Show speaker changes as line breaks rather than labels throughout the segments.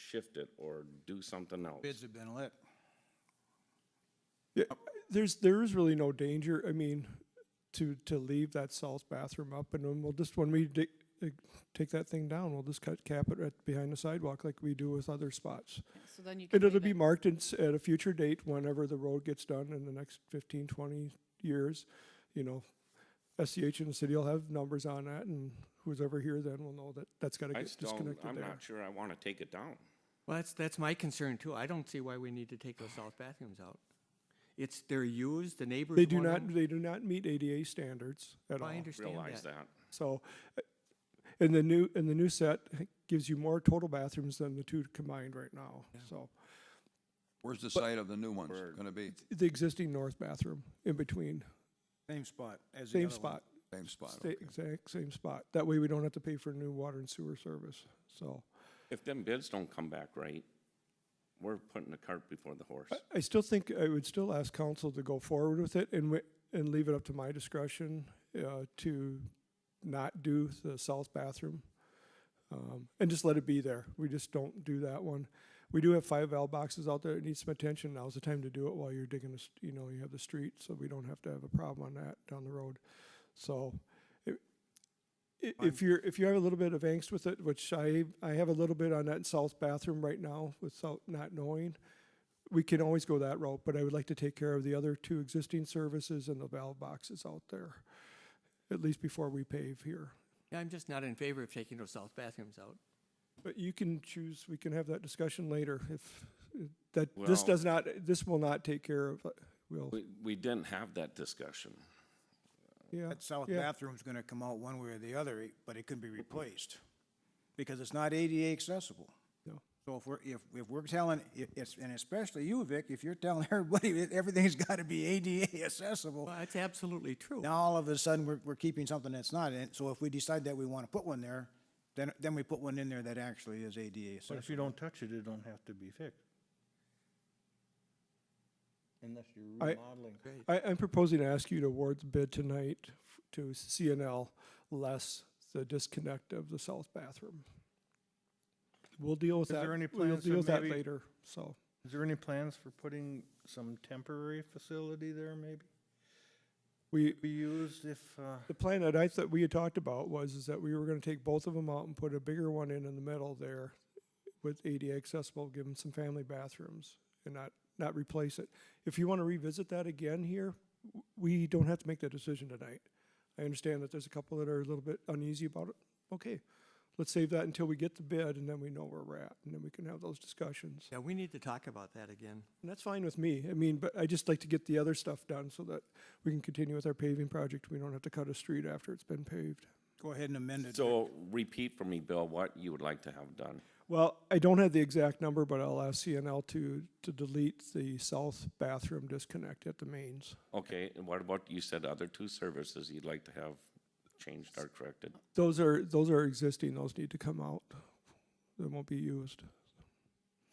shift it or do something else.
Bids have been let.
Yeah, Uh, there's, there is really no danger, I mean, to, to leave that south bathroom up and then we'll just, when we dig, dig- take that thing down, we'll just cut, cap it right behind the sidewalk like we do with other spots.
So then you can
And it'll
leave
be
it.
marked in, s- at a future date, whenever the road gets done in the next fifteen, twenty years, you know, SCH and the city will have numbers on that and who's ever here then will know that that's gotta
I
get
still,
disconnected
I'm
there.
not sure I want to take it down.
Well, that's, that's my concern too. I don't see why we need to take those south bathrooms out. It's, they're used, the neighbors
They do
want
not,
them.
they do not meet ADA standards at all.
I understand
Realize
that.
that.
So, uh, and the new, and the new set gives you more total bathrooms than the two combined right now, so.
Where's the site of the new ones gonna be?
The existing north bathroom in between,
Same spot as the
same
other one.
spot,
Same spot,
sta-
okay.
exact same spot. That way we don't have to pay for new water and sewer service, so.
If them bids don't come back right, we're putting the cart before the horse.
I still think, I would still ask council to go forward with it and, wi- and leave it up to my discretion, uh, to not do the south bathroom. Um, and just let it be there. We just don't do that one. We do have five valve boxes out there. It needs some attention. Now's the time to do it while you're digging, the s- you know, you have the street, so we don't have to have a problem on that down the road. So, i- i- if you're, if you have a little bit of angst with it, which I, I have a little bit on that south bathroom right now without not knowing, we can always go that route, but I would like to take care of the other two existing services and the valve boxes out there, at least before we pave here.
Yeah, I'm just not in favor of taking those south bathrooms out.
But you can choose, we can have that discussion later if, uh, that, this
Well-
does not, this will not take care of, uh, will,
We, we didn't have that discussion.
yeah,
That south
yeah.
bathroom's gonna come out one way or the other, i- but it could be replaced, because it's not ADA accessible.
No.
So if we're, if, if we're telling, i- it's, and especially you, Vic, if you're telling everybody that everything's gotta be ADA accessible,
Oh.
Well, that's absolutely true.
now all of a sudden, we're, we're keeping something that's not, and so if we decide that we wanna put one there, then, then we put one in there that actually is ADA
But
accessible.
if you don't touch it, it don't have to be fixed. Unless you're
I-
remodeling.
I, I'm proposing to ask you to award the bid tonight f- to CNL less the disconnect of the south bathroom. We'll deal with
Is
that,
there any
we'll
plans to
deal with that
maybe-
later, so.
Is there any plans for putting some temporary facility there maybe?
We,
Be used if, uh,
The plan that I thought we had talked about was is that we were gonna take both of them out and put a bigger one in in the middle there with ADA accessible, give them some family bathrooms and not, not replace it. If you wanna revisit that again here, w- we don't have to make that decision tonight. I understand that there's a couple that are a little bit uneasy about it. Okay, let's save that until we get the bid and then we know where we're at and then we can have those discussions.
Yeah, we need to talk about that again.
And that's fine with me. I mean, but I just like to get the other stuff done so that we can continue with our paving project. We don't have to cut a street after it's been paved.
Go ahead and amend it.
So repeat for me, Bill, what you would like to have done.
Well, I don't have the exact number, but I'll ask CNL to, to delete the south bathroom disconnect at the mains.
Okay, and what about, you said other two services you'd like to have changed or corrected?
Those are, those are existing, those need to come out. They won't be used.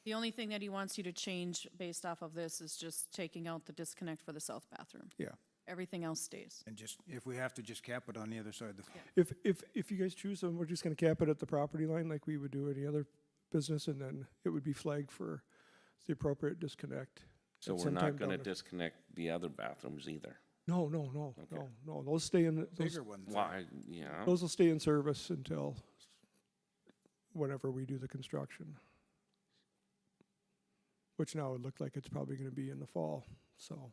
The only thing that he wants you to change based off of this is just taking out the disconnect for the south bathroom.
Yeah.
Everything else stays.
And just, if we have to, just cap it on the other side of the.
If, if, if you guys choose them, we're just gonna cap it at the property line like we would do any other business, and then it would be flagged for the appropriate disconnect.
So
at
we're
some time
not gonna
down the-
disconnect the other bathrooms either.
No, no, no, no, no, those stay in, the- those,
Bigger one.
Why, yeah,
those will stay in service until whenever we do the construction. Which now would look like it's probably gonna be in the fall, so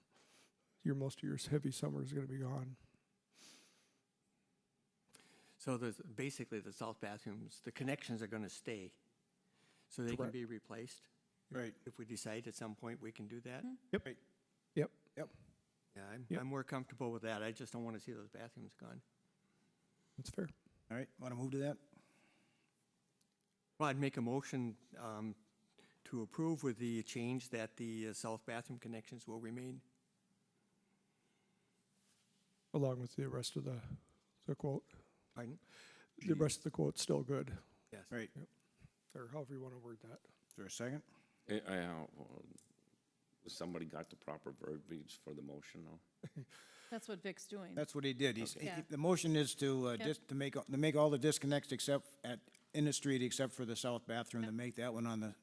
your, most of your s- heavy summer is gonna be gone.
So there's, basically, the south bathrooms, the connections are gonna stay. So they can
Correct.
be replaced.
Right.
If we decide at some point we can do that.
Hmm. Yep,
Yeah,
Yep.
I'm, I'm more comfortable with that. I just don't wanna see those bathrooms gone.
that's fair.
All right, wanna move to that?
Well, I'd make a motion um, to approve with the change that the uh, south bathroom connections will remain.
Along with the rest of the, the quote,
Pardon?
the rest of the quote's still good,
Yes.
Right, is
or however you wanna word that.
there a second?
I, I, uh, somebody got the proper verbiage for the motion though?
That's what Vic's doing.
That's what he did. He's, he-
Yeah.
the motion is to, uh,
Yep.
dis- to make, a- to make all the disconnects except at, in the street, except for the south bathroom, to make that one on the